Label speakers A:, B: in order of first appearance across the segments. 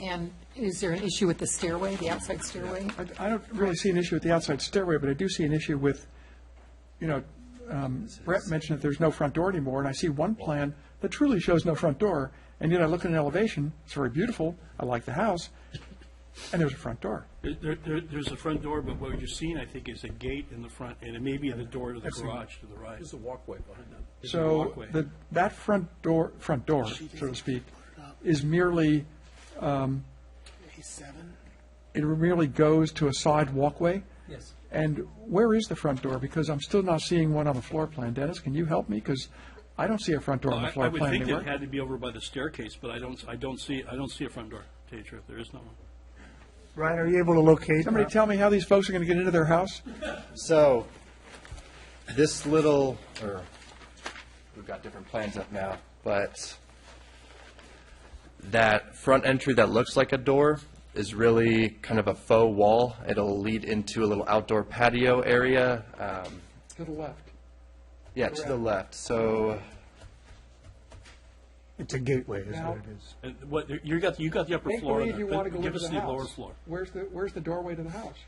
A: And is there an issue with the stairway, the outside stairway?
B: I- I don't really see an issue with the outside stairway, but I do see an issue with, you know, um, Brett mentioned that there's no front door anymore, and I see one plan that truly shows no front door, and yet I look at an elevation, it's very beautiful, I like the house, and there's a front door.
C: There- There, there, there's a front door, but what you're seeing, I think, is a gate in the front, and it may be the door to the garage to the right.
D: There's a walkway behind them.
C: There's a
B: So
C: walkway.
B: the, that front door, front door, so to speak, is merely,
E: Seven?
B: it merely goes to a side walkway?
D: Yes.
B: And where is the front door? Because I'm still not seeing one on the floor plan. Dennis, can you help me? Because I don't see a front door on the
C: I I
B: floor
C: would
B: plan
C: think
B: anywhere.
C: it had to be over by the staircase, but I don't, I don't see, I don't see a front door, to tell you the truth, there is no one.
E: Ryan, are you able to locate? Uh,
B: Somebody tell me how these folks are going to get into their house?
F: So, this little, or, we've got different plans up now, but that front entry that looks like a door is really kind of a faux wall. It'll lead into a little outdoor patio area, um,
B: To the left.
F: yeah, to the left. So,
E: It's a gateway, is
B: Now-
E: what it is.
C: And what, you got, you got the upper
B: Make
C: floor, on
B: believe
C: that,
B: you
C: but
B: want to go into
C: give
B: the house.
C: us the lower floor.
B: Where's the, where's the doorway to the house?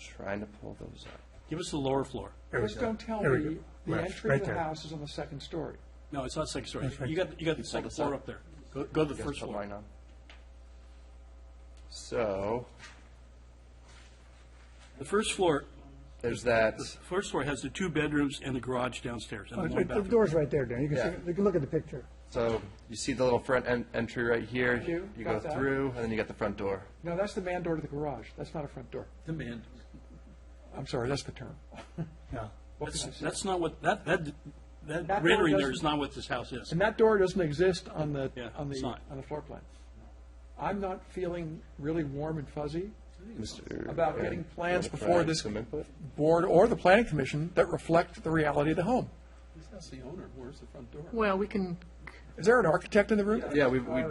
F: trying to pull those up.
C: Give us the lower floor.
E: There we
B: Just
E: go.
B: don't tell
E: There we
B: me
E: go.
B: the
E: Right,
B: entry
E: right
B: to the
E: there.
B: house is on the second story.
C: No, it's not second story, you got, you got the second
F: this
C: floor
F: up.
C: up there, go, go to the
F: You guys
C: first
F: put
C: floor.
F: mine on. So,
C: The first floor,
F: there's that,
C: first floor has the two bedrooms and the garage downstairs, and the one
E: Uh, The
C: bathroom.
E: door's right there, Dan. You can
F: Yeah.
E: see, you can look at the picture.
F: so you see the little front en- entry right here?
B: you.
F: You go
B: Got that.
F: through, and then you got the front door.
B: No, that's the man door to the garage. That's not a front door.
D: The man.
B: I'm sorry, that's the term. What can I
C: That's,
B: say?
C: that's not what, that, that,
B: door
C: that rendering there
B: doesn't-
C: is not what this house is.
B: And that door doesn't exist on the,
C: Yeah,
B: on
C: it's
B: the,
C: not.
B: on the floor plan. I'm not feeling really warm and fuzzy
F: Mr.
B: about getting plans before
F: provide
B: this
F: some input?
B: board or the planning commission that reflect the reality of the home.
D: He's not the owner. Where's the front door?
A: Well, we can,
B: Is there an architect in the room?
F: Yeah, we, we,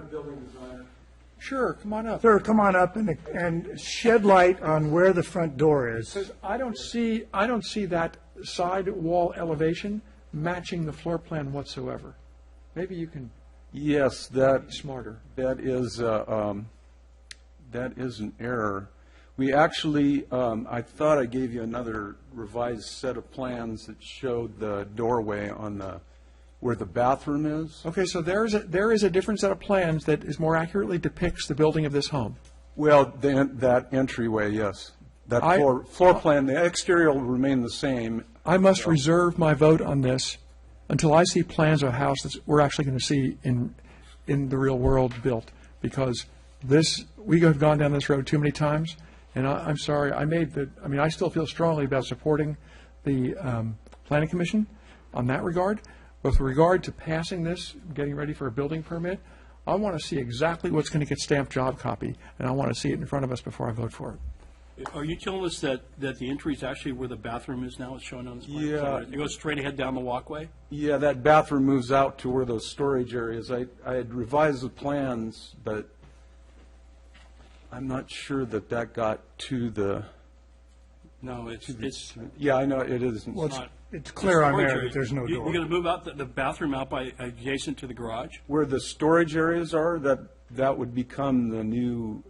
B: Sure, come on up.
E: Sir, come on up and, and shed light on where the front door is.
B: Because I don't see, I don't see that side wall elevation matching the floor plan whatsoever. Maybe you can
G: Yes, that,
B: be smarter.
G: that is, uh, um, that is an error. We actually, um, I thought I gave you another revised set of plans that showed the doorway on the, where the bathroom is.
B: Okay, so there is, a there is a different set of plans that is more accurately depicts the building of this home.
G: Well, then, that entryway, yes. That
B: I-
G: floor, floor plan, the exterior will remain the same.
B: I must reserve my vote on this until I see plans of a house that we're actually going to see in, in the real world built, because this, we have gone down this road too many times, and I, I'm sorry, I made the, I mean, I still feel strongly about supporting the um, planning commission on that regard. With regard to passing this, getting ready for a building permit, I want to see exactly what's going to get stamped job copy, and I want to see it in front of us before I vote for it.
C: Are you telling us that, that the entry is actually where the bathroom is now, it's shown on this plan?
G: Yeah.
C: It goes straight ahead down the walkway?
G: Yeah, that bathroom moves out to where those storage areas. I, I had revised the plans, but I'm not sure that that got to the,
C: No, it's, it's
G: yeah, I know it isn't.
E: Well, it's,
C: not.
E: it's clear on there
C: Storage
E: that there's no
C: area. You- You're going
E: door.
C: to move out the- the bathroom out by adjacent to the garage?
G: Where the storage areas are, that, that would become the new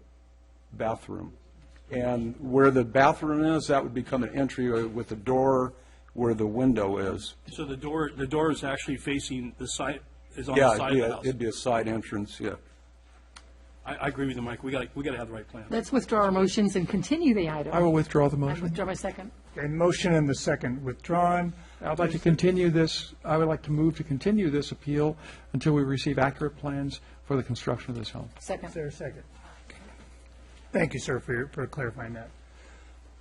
G: bathroom. And where the bathroom is, that would become an entry with a door where the window is.
C: So the door, the door is actually facing the side, is on
G: Yeah,
C: the
G: it'd
C: side
G: be
C: of the
G: a-
C: house.
G: it'd be a side entrance, yeah.
C: I, I agree with you, Mike, we got, to we got to have the right plan.
A: let's withdraw our motions and continue the item.
B: I will withdraw the
A: I
B: motion.
A: withdraw my second.
E: A motion and the second withdrawn.
B: I'd like to continue this, I would like to move to continue this appeal until we receive accurate plans for the construction of this home.
E: Is
A: Second.
E: there a second? Thank you, sir, for, your- for clarifying that.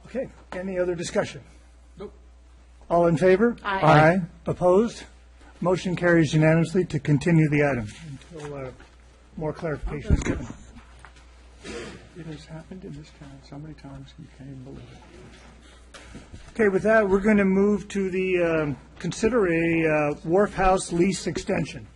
E: Okay, any other discussion?
D: Nope.
E: All in favor?
A: Aye.
E: Aye. Opposed? Motion carries unanimously to continue the item until uh, more clarification is given.
B: It has happened in this town so many times, you can't even believe it.
E: Okay, with that, we're going to move to the, um, consider a uh, Wharf House lease extension.